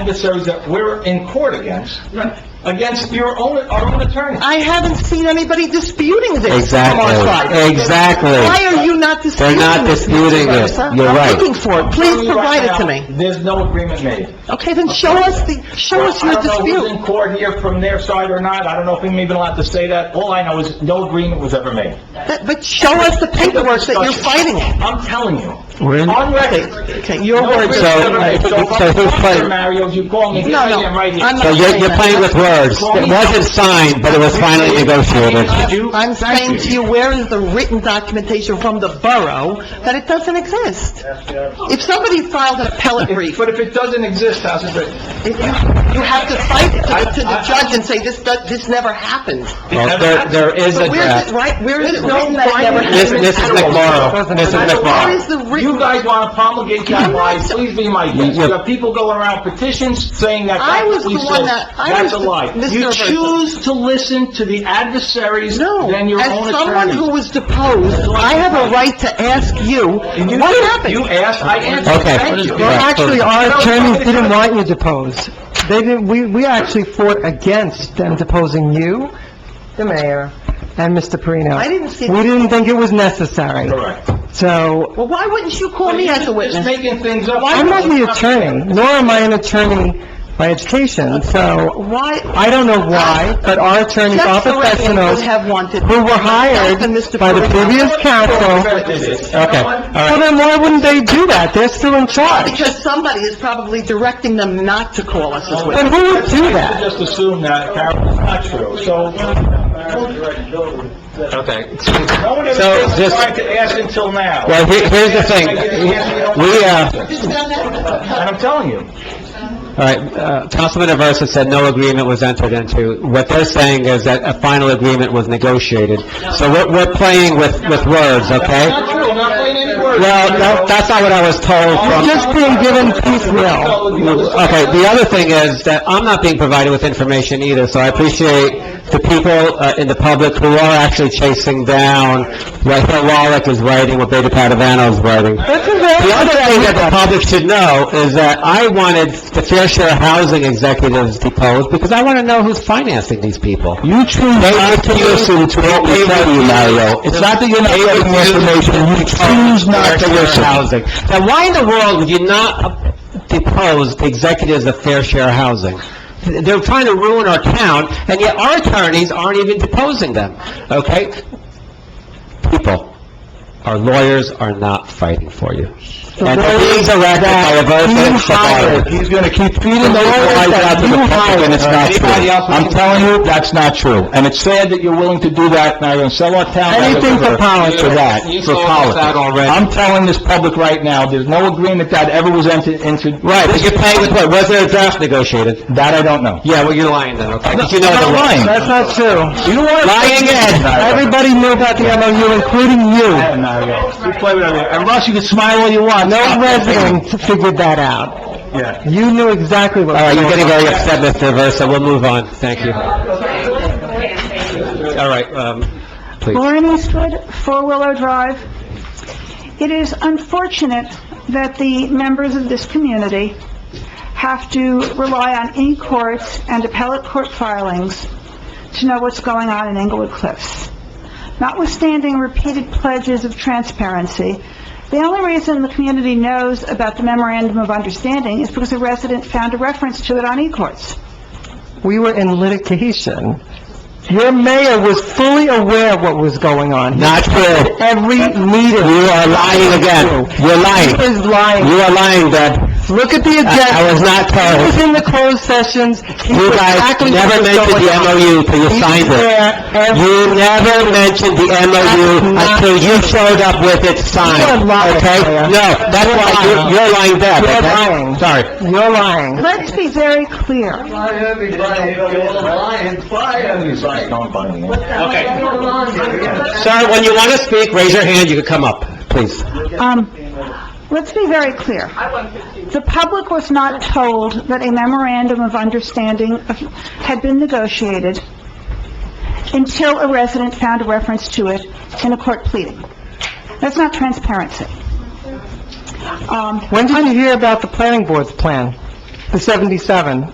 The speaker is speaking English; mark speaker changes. Speaker 1: adversaries that we're in court against,
Speaker 2: Right.
Speaker 1: against your own, our own attorney.
Speaker 2: I haven't seen anybody disputing this from our
Speaker 3: Exactly,
Speaker 2: side. Why
Speaker 3: exactly.
Speaker 2: are you not disputing this?
Speaker 3: They're not disputing
Speaker 2: Mr.
Speaker 3: it.
Speaker 2: Garza?
Speaker 3: You're right.
Speaker 2: I'm looking for it. Please provide it to me.
Speaker 1: There's no agreement made.
Speaker 2: Okay, then show us the, show us your
Speaker 1: I don't know who's
Speaker 2: dispute.
Speaker 1: in court here from their side or not, I don't know if I'm even allowed to say that. All I know is no agreement was ever made.
Speaker 2: But but show us the paperwork that you're fighting it.
Speaker 1: I'm telling you,
Speaker 3: We're in-
Speaker 1: on record.
Speaker 2: Okay, okay, your
Speaker 1: No
Speaker 2: words.
Speaker 1: agreement was ever made. So if
Speaker 3: so
Speaker 1: I'm
Speaker 3: who's
Speaker 1: wrong,
Speaker 3: playing?
Speaker 1: Mario, you call me,
Speaker 2: No, no,
Speaker 1: right here, right here.
Speaker 2: I'm not-
Speaker 3: So you're, you're playing with words. It wasn't signed, but it was finally negotiated.
Speaker 1: You-
Speaker 2: I'm
Speaker 1: Thank
Speaker 2: saying to you, where is the written documentation from the borough that it doesn't exist? If somebody filed an appellate brief,
Speaker 1: But if it doesn't exist, how's it written?
Speaker 2: if you, you have to fight it to the- to the judge and say, this, do- this never happened.
Speaker 3: Well, there, there is a
Speaker 2: But where's it,
Speaker 3: draft.
Speaker 2: right, where is it
Speaker 1: There's no
Speaker 2: written that it never
Speaker 1: finding.
Speaker 3: This,
Speaker 2: happened?
Speaker 3: this is McMorro. This is
Speaker 2: Where is
Speaker 3: McMorro.
Speaker 2: the
Speaker 1: You
Speaker 2: written,
Speaker 1: guys want to promulgate that lie, please be my guest. You have people going around petitions saying that
Speaker 2: I was
Speaker 1: that's what we
Speaker 2: the one
Speaker 1: said.
Speaker 2: that- I
Speaker 1: That's a
Speaker 2: was the-
Speaker 1: lie.
Speaker 2: Mr.
Speaker 1: You
Speaker 2: Versa.
Speaker 1: choose to listen to the adversaries
Speaker 2: no.
Speaker 1: than your
Speaker 2: As
Speaker 1: own
Speaker 2: someone who
Speaker 1: attorney.
Speaker 2: was deposed, I have a right to ask you,
Speaker 1: You-
Speaker 2: what happened?
Speaker 1: You asked, I answered,
Speaker 3: Okay.
Speaker 1: thank you.
Speaker 3: Well, actually,
Speaker 4: Our attorneys didn't want you deposed. They didn't, we, we actually fought against them deposing you, the mayor, and Mr. Perino.
Speaker 2: I didn't see-
Speaker 4: We didn't think it was necessary.
Speaker 1: Correct.
Speaker 4: So,
Speaker 2: Well, why wouldn't you call me as a
Speaker 1: Just
Speaker 2: witness?
Speaker 1: making things up.
Speaker 4: I'm not the attorney, nor am I an attorney by education, so
Speaker 2: Why,
Speaker 4: I don't know
Speaker 2: Uh,
Speaker 4: why, but our attorneys are
Speaker 2: Jeff Corrigan
Speaker 4: professionals
Speaker 2: would have wanted...
Speaker 4: who were hired
Speaker 2: Myself and Mr.
Speaker 4: by the
Speaker 2: Perino.
Speaker 4: previous council.
Speaker 3: Okay, all
Speaker 4: Well,
Speaker 3: right.
Speaker 4: then why wouldn't they do that? They're still in charge.
Speaker 2: Because somebody is probably directing them not to
Speaker 1: Oh,
Speaker 2: call us as
Speaker 4: But
Speaker 2: witnesses.
Speaker 4: who would do that?
Speaker 1: Just assume that Carol is not true, so.
Speaker 3: Okay.
Speaker 1: No one has
Speaker 3: So,
Speaker 1: been
Speaker 3: just-
Speaker 1: trying to ask until now.
Speaker 3: Well, here- here's the thing. We, uh,
Speaker 1: And I'm telling you.
Speaker 3: all right, uh, Councilman Aversa said no agreement was entered into. What they're saying is that a final agreement was negotiated. So we're, we're playing with, with words, okay?
Speaker 1: Not true, I'm not playing any words.
Speaker 3: Well, no, that's not what I was told from...
Speaker 4: You're just being given piecemeal.
Speaker 3: Okay, the other thing is that I'm not being provided with information either, so I appreciate the people uh, in the public who are actually chasing down what Hill Wallach is writing, what Beta Padavano is writing.
Speaker 4: That's a
Speaker 3: The other
Speaker 4: very...
Speaker 3: thing that the public should know is that I wanted the fair share of housing executives deposed because I want to know who's financing these people.
Speaker 5: You choose not to listen to what we tell you, Mario. It's not that you're not getting the information, you choose not to listen.
Speaker 3: Housing. Now, why in the world would you not depose the executives of Fair Share Housing? They're trying to ruin our town, and yet our attorneys aren't even deposing them, okay? People, our lawyers are not fighting for you. And these are acted by a vote
Speaker 5: You
Speaker 3: of
Speaker 5: hired, he's gonna keep feeding those lies out to the public, and it's not true. I'm telling you, that's not true. And it's sad that you're willing to do that, and I'm gonna sell our town.
Speaker 3: Anything for
Speaker 5: politics. For that,
Speaker 3: You
Speaker 5: for
Speaker 3: sold us
Speaker 5: politics.
Speaker 3: out already.
Speaker 5: I'm telling this public right now, there's no agreement that ever was entered into.
Speaker 3: Right, but you're playing with what? Was there a draft negotiated?
Speaker 5: That I don't know.
Speaker 3: Yeah, well, you're lying then, okay? 'Cause you know the
Speaker 5: I'm not
Speaker 3: law.
Speaker 5: lying.
Speaker 4: That's not true.
Speaker 5: You are
Speaker 3: Lying again.
Speaker 4: Everybody knew about the MOU, including you.
Speaker 1: Mario, you play with everything.
Speaker 5: And Russ, you can smile all you want.
Speaker 4: No resident figured that out.
Speaker 1: Yeah.
Speaker 4: You knew exactly what
Speaker 3: All right,
Speaker 4: was
Speaker 3: you're
Speaker 4: going
Speaker 3: getting
Speaker 4: on.
Speaker 3: very upset, Mr. Versa, we'll move on, thank you. All right, um, please.
Speaker 6: Lauren Eastwood, Four Willow Drive. It is unfortunate that the members of this community have to rely on e-courts and appellate court filings to know what's going on in Englewood Cliffs. Notwithstanding repeated pledges of transparency, the only reason the community knows about the memorandum of understanding is because a resident found a reference to it on e-courts.
Speaker 4: We were in litigation. Your mayor was fully aware of what was going on. He-
Speaker 3: Not true.
Speaker 4: Every meeting.
Speaker 3: You are lying again. You're
Speaker 4: He
Speaker 3: lying.
Speaker 4: was lying.
Speaker 3: You are lying, Deb.
Speaker 4: Look at the agenda.
Speaker 3: I was not
Speaker 4: He
Speaker 3: told.
Speaker 4: was in the closed sessions. He
Speaker 3: You
Speaker 4: knew
Speaker 3: guys
Speaker 4: exactly what
Speaker 3: never
Speaker 4: was
Speaker 3: mentioned
Speaker 4: going
Speaker 3: the
Speaker 4: on.
Speaker 3: MOU till you
Speaker 4: He was
Speaker 3: signed it.
Speaker 4: there every-
Speaker 3: You never mentioned the MOU until you showed up with it signed,
Speaker 4: You're lying,
Speaker 3: okay?
Speaker 4: Mayor.
Speaker 3: No, that's why you're- you're lying, Deb,
Speaker 4: You're
Speaker 3: okay?
Speaker 4: lying.
Speaker 3: Sorry.
Speaker 4: You're lying.
Speaker 6: Let's be very clear.
Speaker 3: Sir, when you want to speak, raise your hand, you can come up, please.
Speaker 6: Um, let's be very clear. The public was not told that a memorandum of understanding had been negotiated until a resident found a reference to it in a court pleading. That's not transparency. Um,
Speaker 4: When did you hear about the planning board's plan? the 77.